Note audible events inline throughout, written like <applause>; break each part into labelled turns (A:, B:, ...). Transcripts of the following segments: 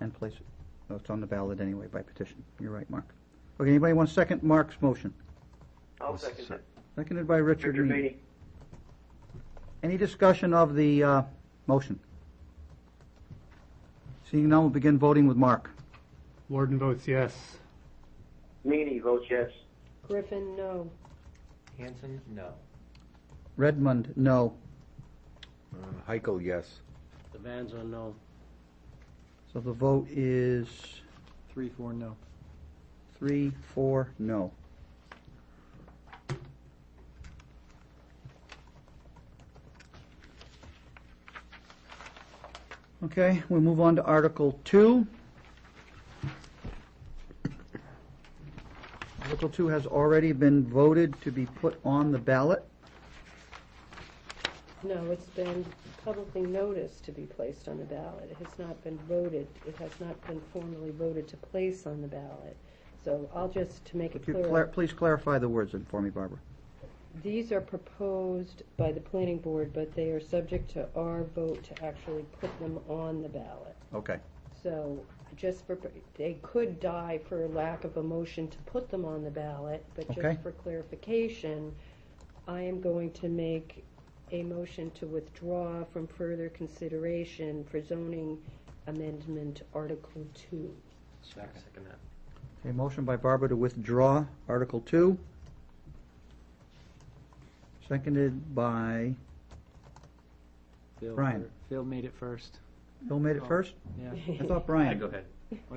A: and place it. No, it's on the ballot anyway by petition. You're right, Mark. Okay, anybody want to second Mark's motion?
B: I'll second that.
A: Seconded by Richard
B: Richard
A: Meany.
B: Meany.
A: Any discussion of the uh, motion? Seeing none, we'll begin voting with Mark.
C: Warden votes yes.
B: Meany votes yes.
D: Griffin, no.
E: Hanson, no.
A: Redmond, no.
F: Uh, Heichel, yes.
G: The van's are no.
A: So the vote is
G: Three, four, no.
A: three, four, no. Okay, we'll move on to Article Two. Article Two has already been voted to be put on the ballot.
D: No, it's been publicly noticed to be placed on the ballot. It has not been voted, it has not been formally voted to place on the ballot. So I'll just, to make it
A: Could you clar-
D: clear,
A: Please clarify the words for me, Barbara.
D: these are proposed by the planning board, but they are subject to our vote to actually put them on the ballot.
A: Okay.
D: So just for, they could die for lack of a motion to put them on the ballot, but
A: Okay.
D: just for clarification, I am going to make a motion to withdraw from further consideration for zoning amendment Article Two.
G: Second that.
A: Okay, motion by Barbara to withdraw Article Two. Seconded by,
G: Phil
A: Brian.
G: fir- Phil made it first.
A: Bill made it first?
G: Oh, <laughs> Yeah.
A: I thought Brian.
E: ahead.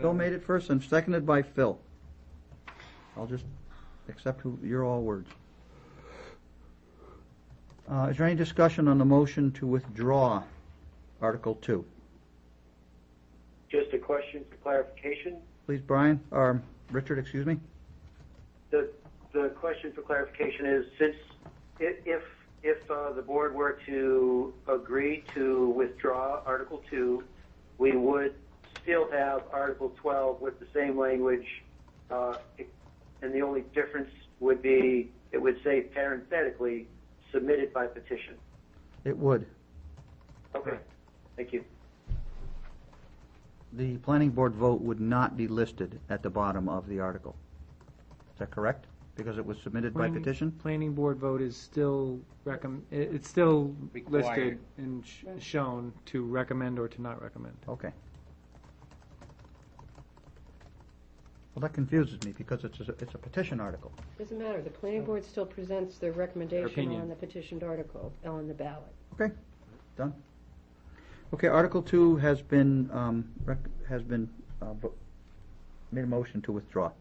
A: Bill made it first and seconded by Phil. I'll just accept who- your all words. Uh, Is there any discussion on the motion to withdraw Article Two?
B: Just a question for clarification.
A: Please, Brian, or Richard, excuse me?
B: The, the question for clarification is, since, i- if, if uh, the board were to agree to withdraw Article 2, we would still have Article 12 with the same language, uh, and the only difference would be, it would say parenthetically, submitted by petition.
A: It would.
B: Okay, thank you.
A: The planning board vote would not be listed at the bottom of the article. Is that correct? Because it was submitted by
G: Planning-
A: petition?
G: Planning board vote is still recomm, it- it's still listed
E: Required.
G: and sh- shown to recommend or to not recommend.
A: Okay. Well, that confuses me because it's a, it's a petition article.
D: Doesn't matter, the planning board still presents their recommendation
G: opinion.
D: on the petitioned article, on the ballot.
A: Okay, done. Okay, Article Two has been, um, rec, has been, uh, vo- made a motion to withdraw.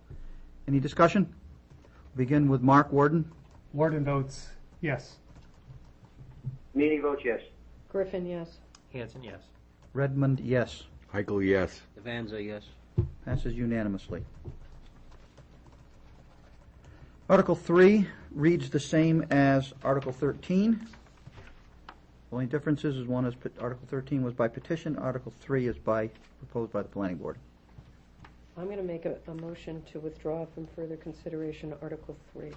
A: Any discussion? Begin with Mark Warden.
C: Warden votes yes.
B: Meany votes yes.
D: Griffin, yes.
E: Hanson, yes.
A: Redmond, yes.
F: Heichel, yes.
E: The van's are yes.
A: Passes unanimously. Article 3 reads the same as Article 13. The Only difference is, is one is, pet- Article 13 was by petition, Article 3 is by, proposed by the planning board.
D: I'm going to make a, a motion to withdraw from further consideration Article Three.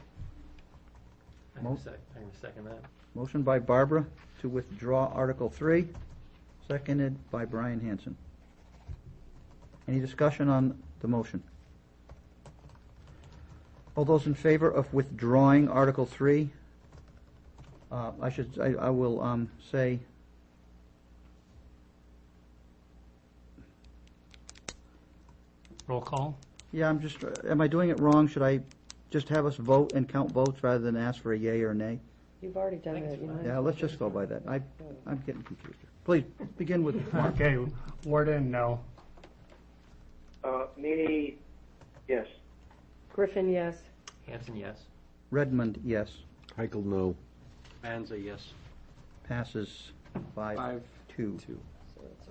E: I
A: Mo-
E: can sec- I can second that.
A: Motion by Barbara to withdraw Article 3, seconded by Brian Hanson. Any discussion on the motion? All those in favor of withdrawing Article 3? Uh, I should, I, I will, um, say,
C: Roll call.
A: yeah, I'm just, am I doing it wrong? Should I just have us vote and count votes rather than ask for a yea or nay?
D: You've already done
E: I think
D: it.
E: it's
D: you
E: fine.
D: might as
A: Yeah,
D: well
A: let's
D: do
A: just go by that. I,
D: it.
A: I'm getting confused. here. Please, begin with Mark.
C: Okay, Warden, no.
B: Uh, Meany, yes.
D: Griffin, yes.
E: Hanson, yes.
A: Redmond, yes.
F: Heichel, no.
E: Van's are yes.
A: Passes five,
G: Five,
A: two.
G: two.
D: So it's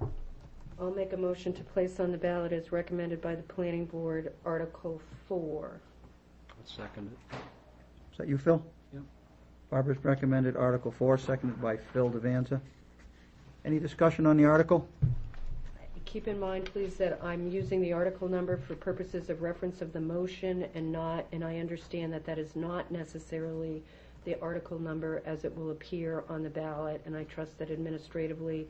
D: off. I'll make a motion to place on the ballot as recommended by the planning board, Article Four.
E: Second it.
A: Is that you, Phil?
G: Yep.
A: Barbara's recommended Article 4, seconded by Phil Devanza. Any discussion on the article?
D: Keep in mind, please, that I'm using the article number for purposes of reference of the motion and not, and I understand that that is not necessarily the article number as it will appear on the ballot, and I trust that administratively